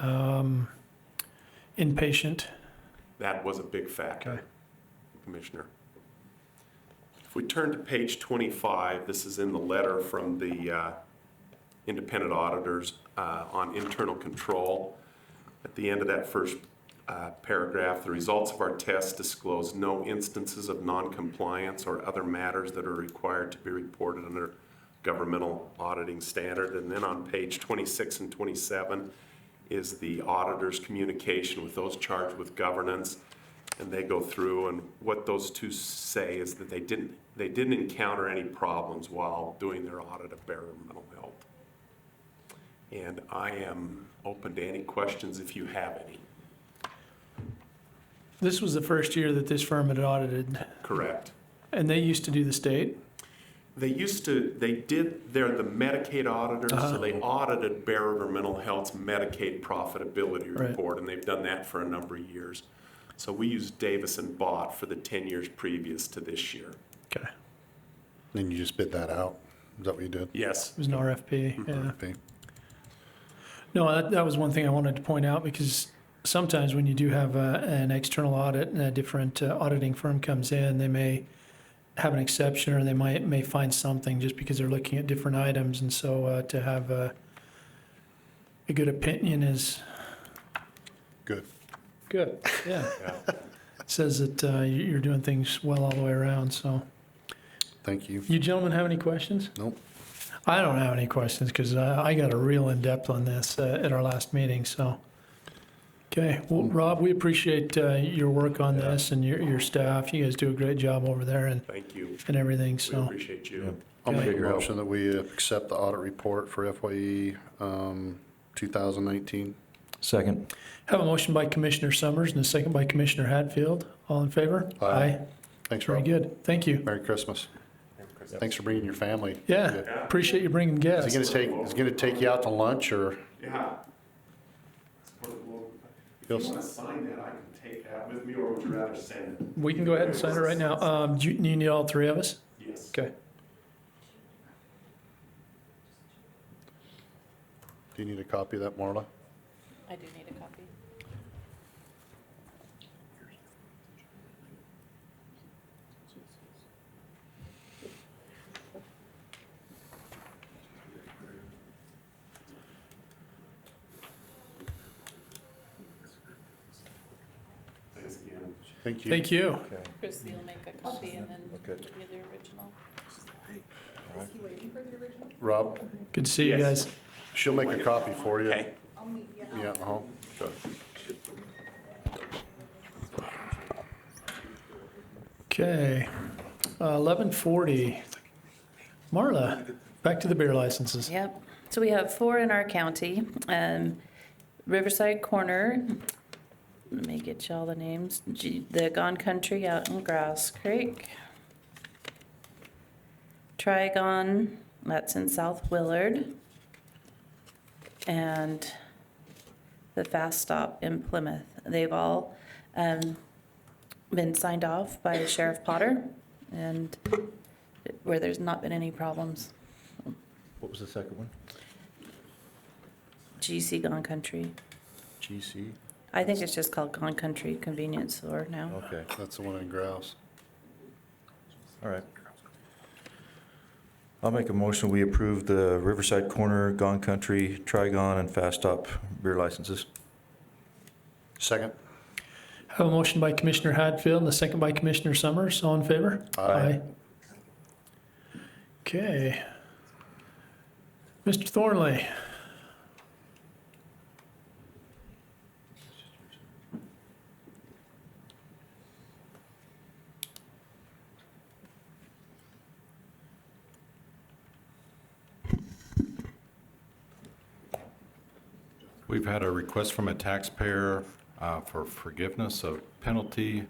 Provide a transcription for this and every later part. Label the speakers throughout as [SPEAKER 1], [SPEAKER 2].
[SPEAKER 1] um, inpatient?
[SPEAKER 2] That was a big
[SPEAKER 1] Okay.
[SPEAKER 2] factor, Commissioner. If we turn to page 25, this is in the letter from the uh, independent auditors uh, on internal control. At the end of that first uh, paragraph, the results of our tests disclose no instances of noncompliance or other matters that are required to be reported under governmental auditing standard. And then on page 26 and 27 is the auditor's communication with those charged with governance. And they go through, and what those two say is that they didn't, they didn't encounter any problems while doing their audit of governmental health. And I am open to any questions if you have any.
[SPEAKER 1] This was the first year that this firm had audited,
[SPEAKER 2] Correct.
[SPEAKER 1] and they used to do the state.
[SPEAKER 2] They used to, they did, they're the Medicaid auditors, so they audited Bear Mental Health's Medicaid profitability
[SPEAKER 1] Right.
[SPEAKER 2] report, and they've done that for a number of years. So we used Davis and Bott for the 10 years previous to this year.
[SPEAKER 1] Okay.
[SPEAKER 3] Then you just bid that out. Is that what you did?
[SPEAKER 2] Yes.
[SPEAKER 1] It was an RFP, yeah.
[SPEAKER 3] Okay.
[SPEAKER 1] No, that, that was one thing I wanted to point out because sometimes when you do have a, an external audit and a different uh, auditing firm comes in, they may have an exception or they might may find something just because they're looking at different items. And so uh, to have a, a good opinion is
[SPEAKER 3] Good.
[SPEAKER 1] good. Yeah.
[SPEAKER 2] Yeah.
[SPEAKER 1] It says that uh, you- you're doing things well all the way around. So,
[SPEAKER 3] Thank you.
[SPEAKER 1] you gentlemen have any questions?
[SPEAKER 3] Nope.
[SPEAKER 1] I don't have any questions because I, I got a real in depth on this uh, at our last meeting. So, okay, well, Rob, we appreciate uh, your work on
[SPEAKER 2] Yeah.
[SPEAKER 1] this and your, your staff. You guys do a great job over there and,
[SPEAKER 2] Thank you.
[SPEAKER 1] and everything.
[SPEAKER 2] We
[SPEAKER 1] So,
[SPEAKER 2] appreciate you.
[SPEAKER 3] I'll make a
[SPEAKER 1] Okay.
[SPEAKER 3] motion that we accept the audit report for FYE um, 2019.
[SPEAKER 4] Second.
[SPEAKER 1] have a motion by Commissioner Summers and a second by Commissioner Hatfield. All in favor?
[SPEAKER 3] Aye. Thanks,
[SPEAKER 1] Very
[SPEAKER 3] Rob.
[SPEAKER 1] good. Thank you.
[SPEAKER 3] Merry Christmas. Thanks for bringing your family.
[SPEAKER 1] Yeah, appreciate you bringing guests.
[SPEAKER 3] Is he gonna take, is he gonna take you out to lunch or?
[SPEAKER 2] Yeah. If you
[SPEAKER 3] Yes.
[SPEAKER 2] want to sign that, I can take that with me, or would you rather send it?
[SPEAKER 1] we can go ahead and sign it right now. Um, do you, you need all three of us?
[SPEAKER 2] Yes.
[SPEAKER 1] Okay.
[SPEAKER 3] Do you need a copy of that, Marla?
[SPEAKER 5] I do need a copy.
[SPEAKER 2] Thanks again.
[SPEAKER 3] Thank you.
[SPEAKER 1] Thank you.
[SPEAKER 5] Chris, you'll make a copy and then give me the original.
[SPEAKER 3] Rob,
[SPEAKER 1] Good to see you
[SPEAKER 2] Yes.
[SPEAKER 1] guys.
[SPEAKER 3] she'll make a copy for you.
[SPEAKER 2] Okay.
[SPEAKER 3] Yeah, uh-huh.
[SPEAKER 1] Okay, Uh, eleven forty. Marla, back to the beer licenses.
[SPEAKER 5] Yep. So we have four in our county. Um, Riverside Corner, let me get y'all the names. G- The Gone Country out in Grouse Creek. Trigon, that's in South Willard. And the Fast Stop in Plymouth. They've all um, been signed off by Sheriff Potter and where there's not been any problems.
[SPEAKER 4] What was the second one?
[SPEAKER 5] GC Gone Country.
[SPEAKER 3] GC,
[SPEAKER 5] I think it's just called Gone Country Convenience Store now.
[SPEAKER 4] Okay,
[SPEAKER 3] that's the one in Grouse.
[SPEAKER 4] all right. I'll make a motion, we approve the Riverside Corner, Gone Country, Trigon, and Fast Stop beer licenses.
[SPEAKER 3] Second?
[SPEAKER 1] Have a motion by Commissioner Hadfield and a second by Commissioner Summers. All in favor?
[SPEAKER 4] Aye.
[SPEAKER 1] Aye. Okay. Mr. Thornley,
[SPEAKER 6] We've had a request from a taxpayer uh, for forgiveness of penalty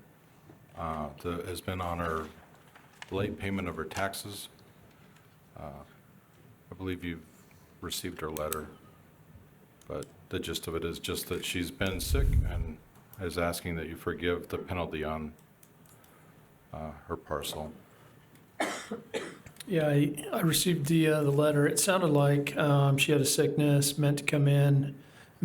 [SPEAKER 6] uh, that has been on her late payment of her taxes. Uh, I believe you've received her letter, but the gist of it is just that she's been sick and is asking that you forgive the penalty on uh, her parcel.
[SPEAKER 1] yeah, I, I received the, uh, the letter. It sounded like, um, she had a sickness, meant to come in,